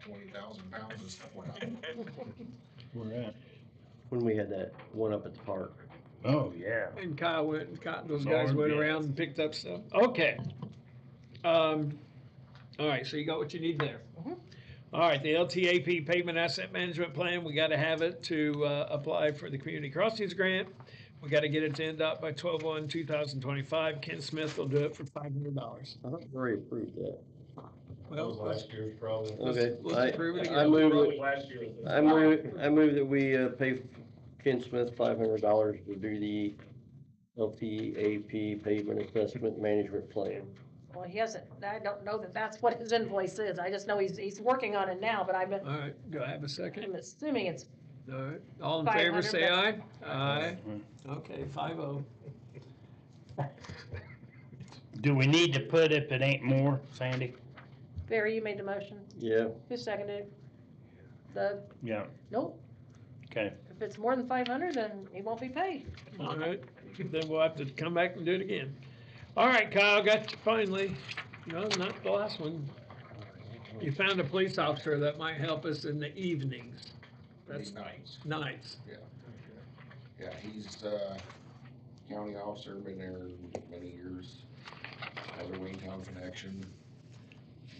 twenty thousand pounds of stuff went out. Where at? When we had that one up at the park. Oh, yeah. And Kyle went, and Kyle, those Sorry, guys went yeah. around and picked up stuff. Okay. Um, all right, so you got what you need there. Mhm. All right, the LTAP pavement asset management plan, we gotta have it to, uh, apply for the community crossings grant. We gotta get it to end up by twelve one, two thousand twenty-five. Ken Smith will do it for five hundred dollars. I thought we already approved that. That was last year's problem. Okay. let's I- approve it I again. move, Probably last year. was the- I move, I move that we uh, pay Ken Smith five hundred dollars to do the LTAP pavement assessment management plan. Well, he hasn't, I don't know that that's what his invoice is. I just know he's, he's working on it now, but I'm, All right, do I have a second? I'm assuming it's, All right, all in favor, 500, say aye. Aye. Mhm. Okay, five oh. Do we need to put if it ain't more, Sandy? Barry, you made the motion. Yeah, Who seconded? it? The, Yeah, nope, okay. if it's more than five hundred, then he won't be paid. All right, then we'll have to come back and do it again. All right, Kyle, got you finally. No, not the last one. You found a police officer that might help us in the evenings. That's He's nice. nice. Yeah, he's, uh, county officer, been there many years, has a Waytown connection,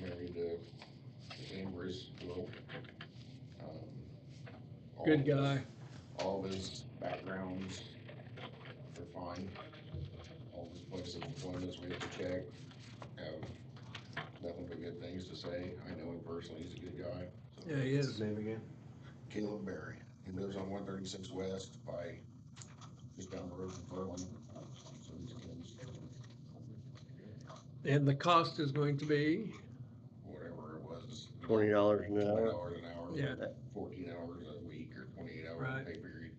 married to Amber's little. um, all Good of guy. all of his backgrounds are fine. All of his places of employment, we have to check, have nothing but good things to say. I know him personally, he's a good guy. so- Yeah, he is. name again? Caleb Berry. He lives on one thirty-six west by, just down the road from Berlin. So he's And the cost is going to be, Whatever it was, twenty dollars an twenty hour. dollars an hour, yeah, fourteen hours a week or twenty-eight hour Right. pay period.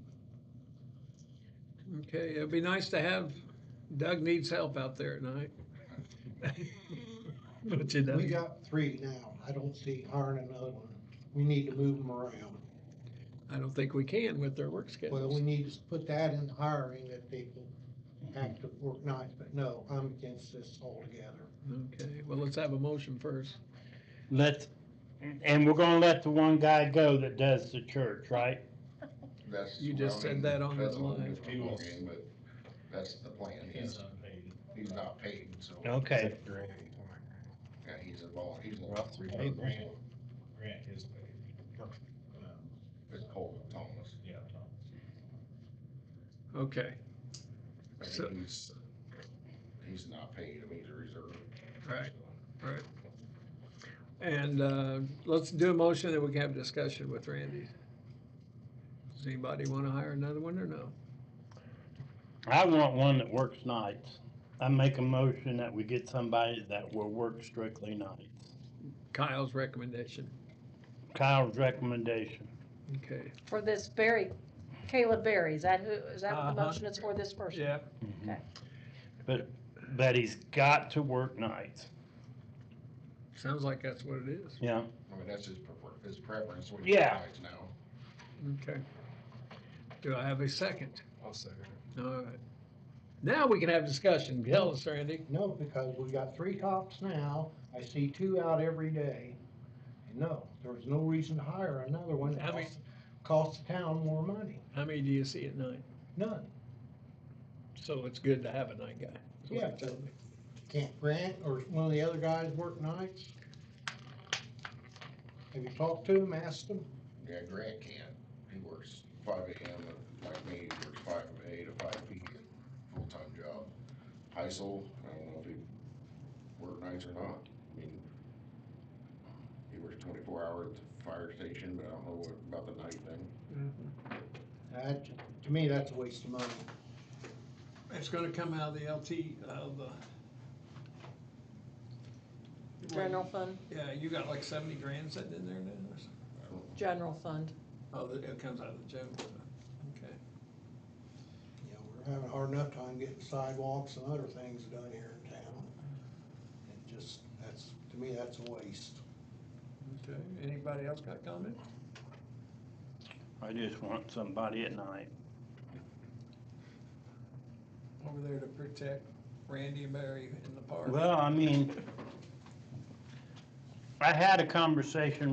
okay, it'd be nice to have, Doug needs help out there at night. But you We don't. got three now. I don't see hiring another one. We need to move them around. I don't think we can with their work Well, we schedules. need to put that in hiring that they can act at work nights, but no, I'm against this altogether. Okay, well, let's have a motion first. Let, and we're gonna let the one guy go that does the church, right? That's. You just said that on the that's a whole line. different ballgame, But that's the plan. He's, he's not paid, so. Okay, Yeah, he's a vol, he's a. Rough three he's a- grand. Grant is paid. It's Cole Thomas. Yeah. Okay, I mean, So- He's, he's not paid. I mean, he's a reserve. all right. And uh, let's do a motion that we can have a discussion with Randy. Does anybody want to hire another one or no? I want one that works nights. I make a motion that we get somebody that will work strictly nights. Kyle's recommendation. Kyle's recommendation. Okay. For this Barry, Caleb Barry, is that who, is that what the Uh-huh. motion is for this person? Yeah. Mm-hmm. Okay. But, but he's got to work nights, Sounds like that's what it is. yeah. I mean, that's his prefer, his preference. what he Yeah. decides Now. Okay. Do I have a second? I'll second it. All right. Now we can have discussion. Tell us, Randy. No, because we got three cops now. I see two out every day. And no, there's no reason to hire another one. I that mean- costs- Costs the town more money. How many do you see at night? None. So it's good to have a night guy. is what Yeah. you're telling me. Can't Grant or one of the other guys work nights? Have you talked to him, asked him? Yeah, Grant can. He works five AM, to- like me, he works five from A to five P, full-time job. Heisel, I don't know if he worked nights or not. I mean, he works twenty-four hours at the fire station, but I don't know what, about the night thing. That, to me, that's a waste of money. It's gonna come out of the LT, of the. General fund, Yeah, you got like seventy grand sitting in there now or something? I don't know. general fund. Oh, that- it comes out of the general fund, okay. You know, we're having a hard enough time getting sidewalks and other things done here in town. And just, that's, to me, that's a waste. Okay, anybody else got comment? I just want somebody at night. Over there to protect Randy and Barry in the park. Well, I mean, I had a conversation